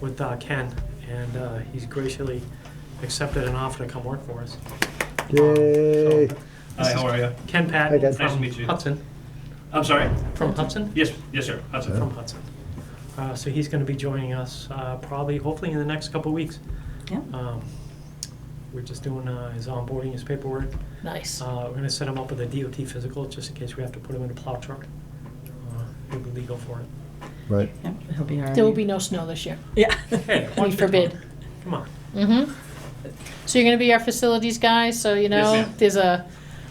with uh, Ken, and uh, he's graciously accepted an offer to come work for us. Um, Yay. Hi, how are you? Ken Hi, Patton Ken. Nice to from meet you. Hudson, I'm sorry? from Hudson? Yes, yes, sir. Hudson. From Hudson. Uh, So he's going to be joining us uh, probably, hopefully in the next couple of weeks. Yeah. Um, We're just doing uh, his onboarding, his paperwork. Nice. Uh, We're going to set him up with a DOT physical, just in case we have to put him in a plow truck. Uh, He'll be legal for it. Right. Yeah, He'll be all right. There will be no snow this year. Yeah. Hey, We watch your forbid. tongue. Come on. Mm-hmm. So you're gonna be our facilities guy, so you Yes, know, ma'am. there's a,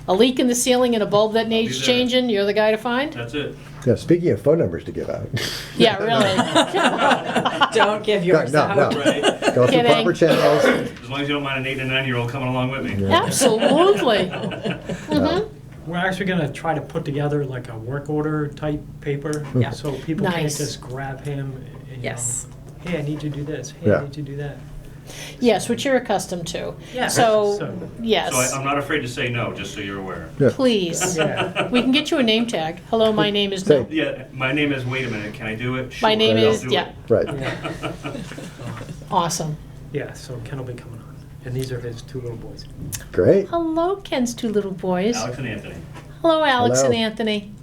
a leak in the ceiling and a bulb that be needs there. changing, you're the guy to find? That's it. Now, speaking of phone numbers to give out, Yeah, really. Don't give yours No, no, out. no. Right? as go through Kidding. proper channels. long as you don't mind an eight and nine year old coming along with me. Yeah. Absolutely. Uh, Mm-hmm. We're actually gonna try to put together like a work order type paper, Yeah. so people can't Nice. just grab him and, you Yes. know, hey, I need you to do this, hey, Yeah. I need you to do that. Yes, which you're accustomed to. Yeah. So- So, So I, I'm yes, not afraid to say no, just so you're aware. Yeah. please. Yeah. We can get you a name tag. Hello, my name is Say- Bill. Yeah, my name is, wait a minute, can I do it? My name I'll is- do yeah. Right. Yeah, Awesome. yeah, so Ken will be coming on, and these are his two little boys. Great. Hello, Ken's two little it. boys. Alex and Anthony. Hello, Alex and Hello. Anthony.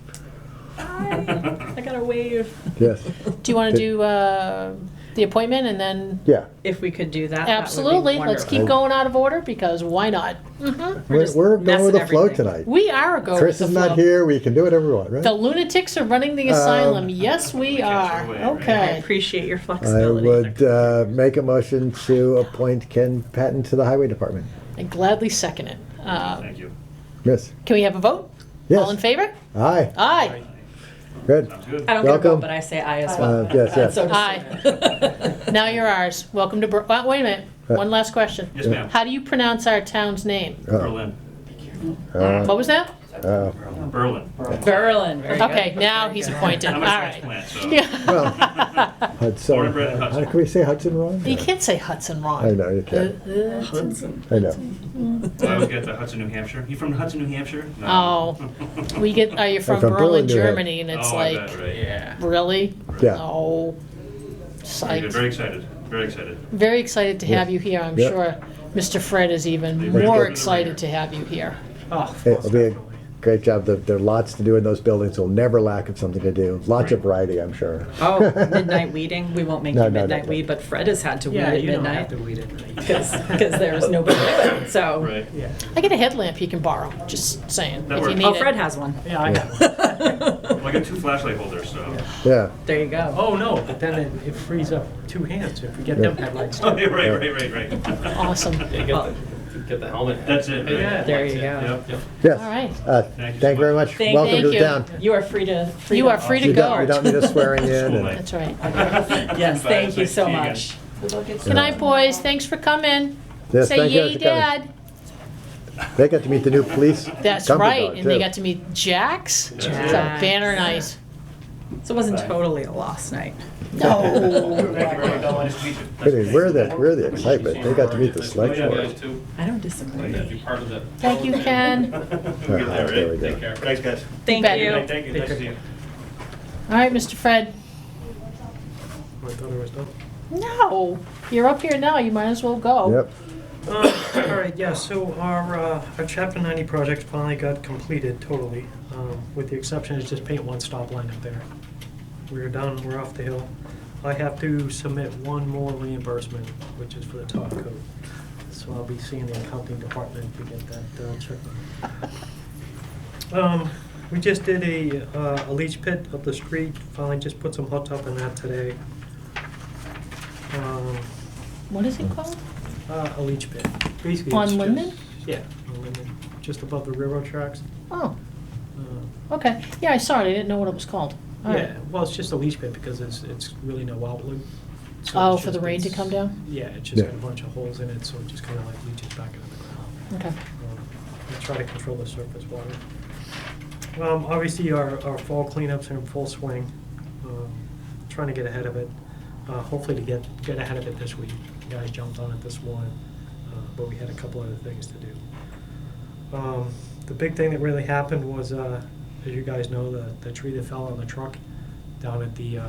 I got to wave. Yes. Do you wanna Did- do, uh, the appointment and then Yeah. If we could do that, Absolutely. That would be Let's keep wonderful. going out of order because why not? hmm We're We're, just we're going messing with the flow everything. tonight. We are a go. Chris with is the not flow. here. We can do whatever we want, right? The lunatics are running the Um, asylum. yes, we Yes, are. we are. I Okay. appreciate your I flexibility. would uh, make a motion to appoint Ken Patton to the Highway Department. I gladly second it. Uh, Thank you. Yes. can we have a vote? Yes. All in favor? Uh, Aye. Aye. Good. Sounds good. I don't get a Welcome. vote, but I say aye as well. Uh, yes, yes. So does- Aye. Now you're ours. Welcome to. Bur- oh, wait a minute. Uh, One last question. Yes, ma'am. How do you pronounce our town's name? Oh, Berlin. oh, What was that? oh. Berlin. Berlin. Very good. Okay, now he's appointed. All I'm a right. transplant, so. Well, Yeah. Hudson. Born and bred in Hudson. How can we say Hudson wrong? you can't say Hudson wrong. I know, you can't. Uh, uh, I know. I always get the Hudson, New Hampshire. You from Hudson, New Hampshire? No. Oh. We get, are you from from Berlin, Berlin, New Hampshire. Germany? And it's oh, like, I bet, right? Yeah. really? Yeah. No. Very good. Very Psyched. excited. Very excited. Very excited to have you here. I'm Yeah. sure Mr. Fred is even Very more good. excited to have you here. Oh, Hey, most It'll be a definitely. great job. There- There are lots to do in those buildings. We'll never lack of something to do. Lots of variety, I'm sure. Oh, midnight weeding. We won't make No, you no, no, midnight no. weed, but Fred has had to weed Yeah, at you don't have midnight to weed it. because there was nobody. there. So Right. Yeah, I get a headlamp you can borrow, just saying, That if you works. need oh, it. Fred has one. yeah, I got one. Well, I got two flashlight holders, so. Yeah. There you go. Oh, no, but then it- it frees up two hands if we get them headlights. Oh, yeah, right, right, right, right. Awesome. Yeah, Well- get the, get the helmet. That's it. Right? Yeah. There you That's it. go. Yep, yep. Yes. All right. Uh, Thank you so Thank you very much. much. Thank- Welcome to thank the you. town. You are free to. Free You to are free to You don't, you go. don't need us swearing in. and- That's right. Yes, Bye, nice thank you to so see you again. much. Good night, boys. Thanks for coming. Yes, Say thank you yay, for coming. Dad. They got to meet the new police. That's company right. dog, And they too. got to meet Jax. That's So it. Banner nice. So it wasn't totally a lost night. Oh, Really, Where the, where the excitement? They got to meet the select Yeah, board. I don't disagree. Be part of the- Thank you, Ken. You're there, There we right? go. Take care. Thanks, guys. Thank bet. you. Thank you. Nice to see you. All right, Mr. Fred. I thought it was done. No, you're up here now. You might as well go. Yep. Oh. Uh, All right, yeah, so our, uh, our chapter ninety project finally got completed totally, um, with the exception of just paint one stop line up there. We're done, we're off the hill. I have to submit one more reimbursement, which is for the top coat. So I'll be seeing the accounting department to get that uh, checked. Um, we just did a, uh, a leach pit up the street, finally just put some hot top in that today. Um, What is it called? uh, a leach pit. Basically, On it's just- Linden? Yeah, on Linden, just above the railroad tracks. Oh, Uh, okay. Yeah, I saw it. I didn't know what it was called. All right. Yeah, well, it's just a leach pit because it's, it's really no outlet. So Oh, it's for the just- rain to it's- come down? Yeah, it's just got a Yeah. bunch of holes in it, so it just kind of like leaches back into the ground. Okay. Um, I try to control the surface water. Um, obviously, our, our fall cleanups are in full swing, um, trying to get ahead of it, uh, hopefully to get, get ahead of it this week. The Guys jumped on it this morning, uh, but we had a couple other things to do. Um, the big thing that really happened was, uh, as you guys know, the, the tree that fell on the truck down at the, uh,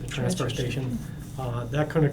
the transfer Transfer station. Uh, that couldn't